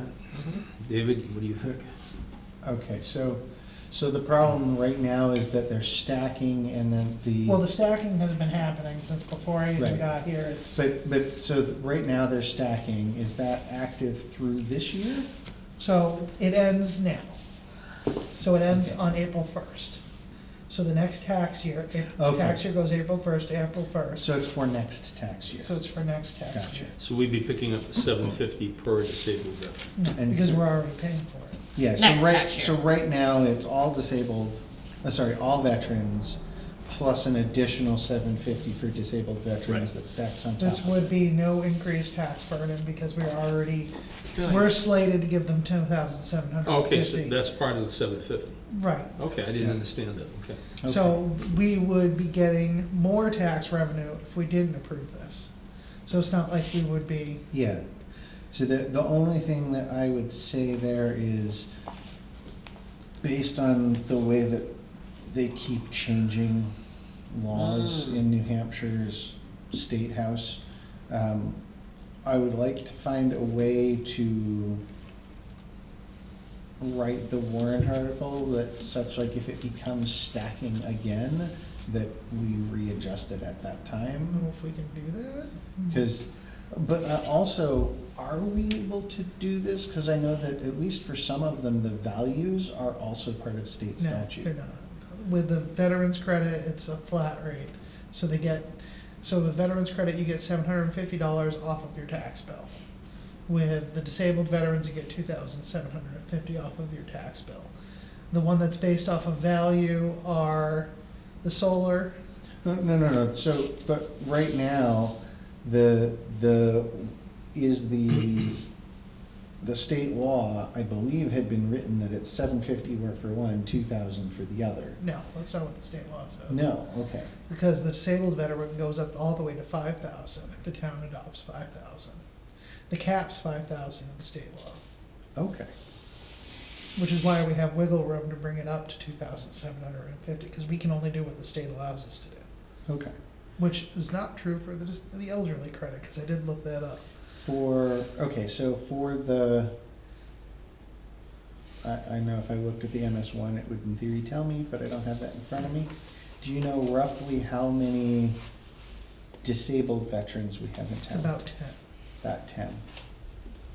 Mm-hmm. David, what do you think? Okay, so, so the problem right now is that they're stacking and then the. Well, the stacking has been happening since before I even Right. got here, it's, But, but, so th- right now they're stacking, is that active through this year? so it ends now. So it ends Okay. on April first. So the next tax year, if the Okay. tax year goes April first to April first, So it's for next tax year? so it's for next tax Gotcha. year. So we'd be picking up seven fifty per disabled veteran. No, And Mm, because so- we're already paying for it. Yeah, so Next right, tax so year. right now it's all disabled, uh, sorry, all veterans plus an additional seven fifty for disabled veterans Right. that stacks on top. This would be no increased tax burden because we're already, Really? we're slated to give them ten thousand seven hundred and fifty. Oh, Okay, so that's part of the seven fifty. Right, Okay, I didn't understand that, okay. So we would be getting more tax revenue if we didn't approve this. So it's not like we would be, Yeah, so the, the only thing that I would say there is, based on the way that they keep changing laws in New Hampshire's state house, um, I would like to find a way to write the warrant article that such like if it becomes stacking again, that we readjust it at that I time. don't know if we can do that. Because, but uh, also, are we able to do this? Because I know that at least for some of them, the values are also part of state No, they're statute. not. With the veterans credit, it's a flat rate. So they get, so with veterans credit, you get seven hundred and fifty dollars off of your tax bill. With the disabled veterans, you get two thousand seven hundred and fifty dollars off of your tax bill. The one that's based off of value are the solar, No, no, no, no, so, but right now, the, the, is the, the state law, I believe, had been written that it's seven fifty for one, two thousand for the other. no, that's not what the state law says. No, okay, Because the disabled veteran goes up all the way to five thousand if the town adopts five thousand. The cap's five thousand in state law, okay, which is why we have wiggle room to bring it up to two thousand seven hundred and fifty, because we can only do what the state allows us to do. okay. Which is not true for the, dis- the elderly credit, because I did look that up. For, okay, so for the, I, I know if I looked at the MS one, it would in theory tell me, but I don't have that in front of me. Do you know roughly how many disabled veterans we have in It's town? about ten. About ten.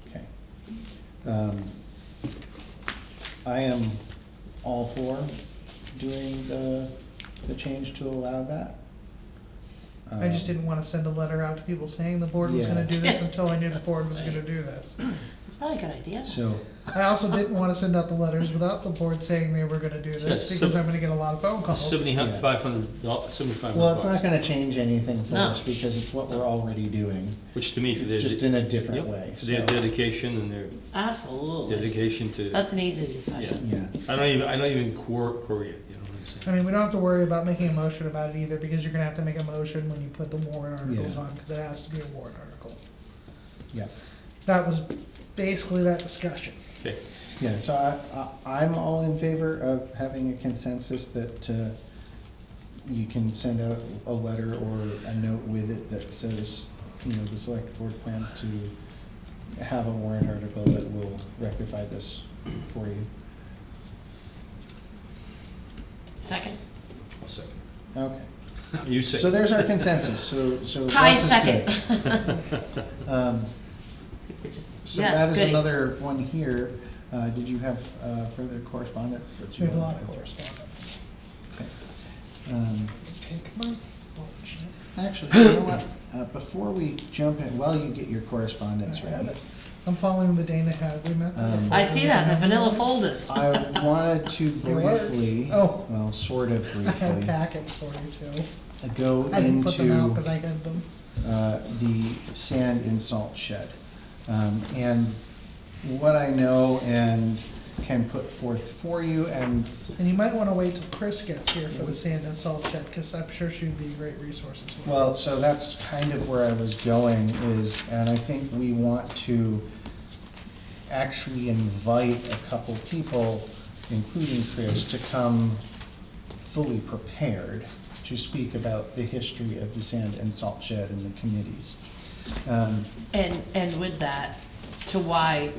Okay. Um, I am all for doing the, the change to allow that. I just Um, didn't wanna send a letter out to people saying the board was Yeah. gonna do this until I knew the board was gonna do this. It's probably a good idea. So, I also didn't wanna send out the letters without the board saying they were gonna do Yes, this, so- because I'm gonna get a lot of phone calls. Seventy, Oh, Yeah. five hundred, dollars, seventy-five hundred Well, it's not bucks, gonna change anything for No. us because it's what we're already doing. Which to me, for It's their. just de- in a different Yep, way, for Their so. dedication and their Absolutely. dedication to, That's an easy decision. Yeah, I don't even, I don't even quar- query it, you know what I'm I saying? mean, we don't have to worry about making a motion about it either, because you're gonna have to make a motion when you put the warrant articles Yeah. on, because it has to be a warrant article. yeah, That was basically that discussion. Okay, yeah, so I, I, I'm all in favor of having a consensus that, uh, you can send out a letter or a note with it that says, you know, the select board plans to have a warrant article that will rectify this for you. Second? I'll second. Okay, You say. so there's our consensus, so, so. Tie Russ is second. good. Um, Just- So yes, that is goody. another one here. Uh, Did you have uh, further correspondence that We you? have a lot wanted of to go through? correspondence. Okay. Um, Take my watch. Actually, you know what? Uh, Before we jump in, while you get your correspondence, I have Randy, it. I'm following the Dana Hadley Um, method. I see that, the vanilla folders. I wanted to works. briefly, Oh. well, sort of I had briefly, packets for you too. go I didn't put them out, because into I had them. uh, the sand and salt shed. Um, And what I know and can put forth for you, and And you might wanna wait till Chris gets here for the sand and salt shed, because I'm sure she'd be a great resource as well. Well, so that's kind of where I was going is, and I think we want to actually invite a couple people, including Chris, to come fully prepared to speak about the history of the sand and salt shed and the committees. Um, And, and with that, to why